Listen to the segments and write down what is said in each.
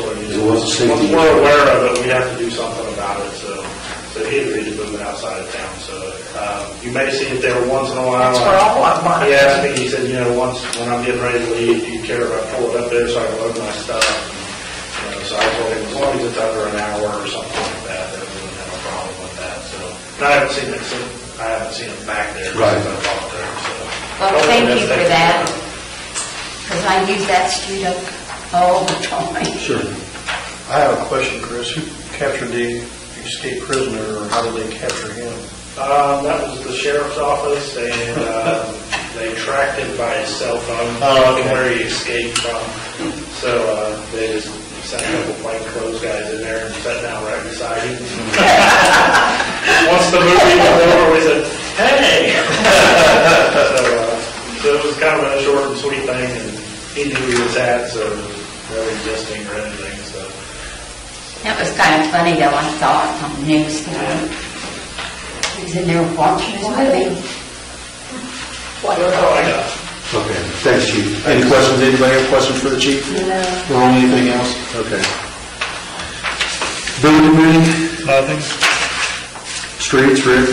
a We're safety. we're aware of it, we have to do something about it, so, so he agreed to move it outside of town, so, um, you may see it there once in a while. That's where all our money- He asked me, he said, you know, once, when I'm getting ready to leave, do you care if I pull it up there so I can load my stuff? You know, so I told him, as long as it's under an hour or something like that, then we wouldn't have a problem with that, so. And I haven't seen it, since- I haven't seen it back there since Right. I walked there, so. Well, thank you for Hopefully that, that's- because I use that street up all the time. Sure. I have a question, Chris. Who captured the escaped prisoner, or how did they capture him? Um, that was the sheriff's office, and, um, they tracked him by his cell phone. Oh, okay. Where he escaped from. So, uh, they just sent a couple plainclothes guys in there and sat down right beside him. Once the movie was over, we said, hey! So, uh, so it was kind of a short and sweet thing, and he knew he was at, so, no resisting or anything, so. That was kind of funny though, I saw it on the news. tonight. He was in there watching his movie. Oh, I got it. Okay, thanks, chief. Any questions, anybody have questions for the chief? No. Or anything else? Okay. Building committee, Nothing. streets, Rick?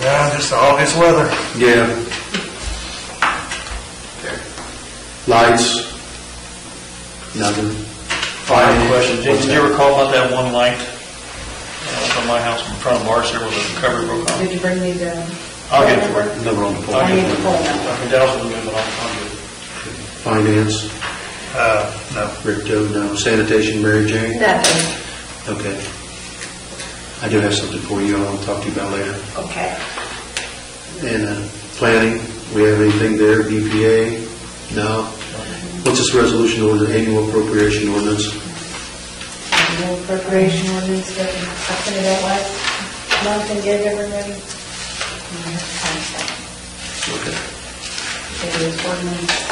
Yeah, just the obvious weather. Yeah. Lights? Nothing? I Fire have a question. Did What's did that? you recall about that one light uh, from my house in front of ours, there was a cover broke on? Did you bring me the? I'll get it for you. Number on the I'll get pole. phone it for you. I can douse it in a minute, but I'll I'll get it. Finance, Uh, no. Rick, Joe, no. Sanitation, Mary Jane? Nothing. Okay. I do have something for you I want to talk to you about later. Okay. And uh, planning, we have anything there, BPA? No? What's this resolution order, annual appropriation ordinance? No preparation ordinance, that I sent it out last month and gave everybody. Okay. It is ordinance.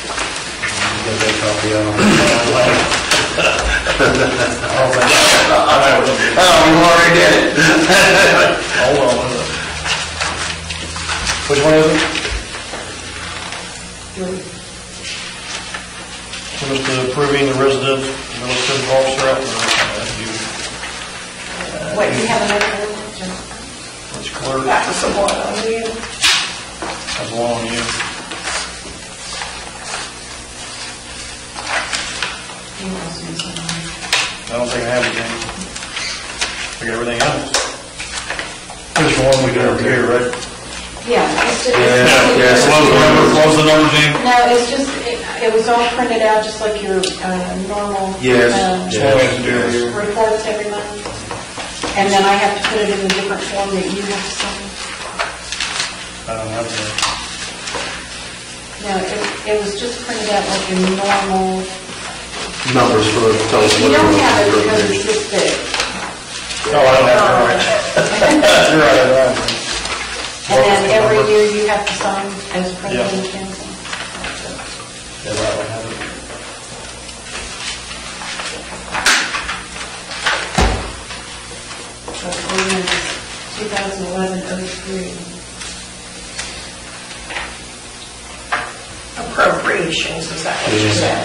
You got that copy out on the- Oh, you already did it. Hold on, hold on. Which one is it? It was the approving the resident, the resident officer after the, Wait, do you have another one? which clerk, That was the one on you. that's one on you. You know, Susan. I don't think I have anything. I got everything else. There's one we got over here, right? Yeah, it's just. yeah, it's- Close the number, close the number, Jane. No, it's just, it it was all printed out just like your uh, normal. Yes. um, Yeah. That's what we have to do here. Reports every month. And then I have to put it in a different form that you have to sign. I don't have that. No, it- it was just printed out like your normal. Numbers for, tell us You what. don't your have it because appropriation- it's just that. Oh, I don't have it, right. You're right, I don't have it. And then every year you have to sign as president of council. Yeah, right, I have it. So ordinance 2011-03. Appropriations, is that what you said?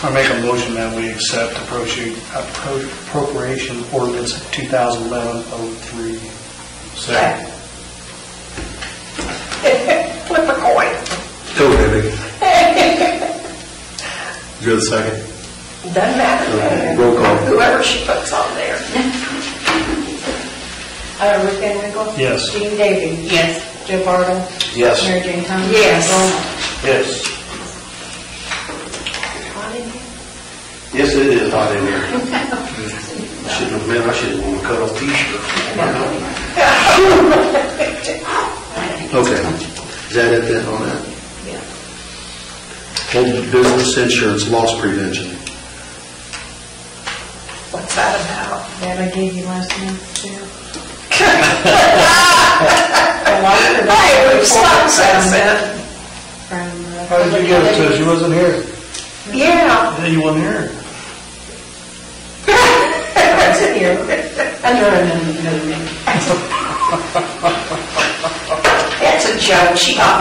I make a motion that we accept approchi- appro- appropriation ordinance 2011-03. Second. Flip a coin. Go ahead, Vicky. You're the second. Doesn't matter. Roll call. Whoever she puts on there. Uh, Rick Van Winkle? Yes. Gene Davey? Yes. Joe Bartle? Yes. Mary Jane Thomas? Yes. Yes. Yes, it is hot in here. Shouldn't have been, I should have worn a cut-off t-shirt. Okay, is that it then on that? Yeah. Old business insurance loss prevention. What's that about? That I gave you last month, too. A lot of the- Hey, we've stopped since then. From, uh, How did you get it to us? You wasn't here. Yeah. Yeah, you wasn't here. It's here, under another name. It's a joke. She got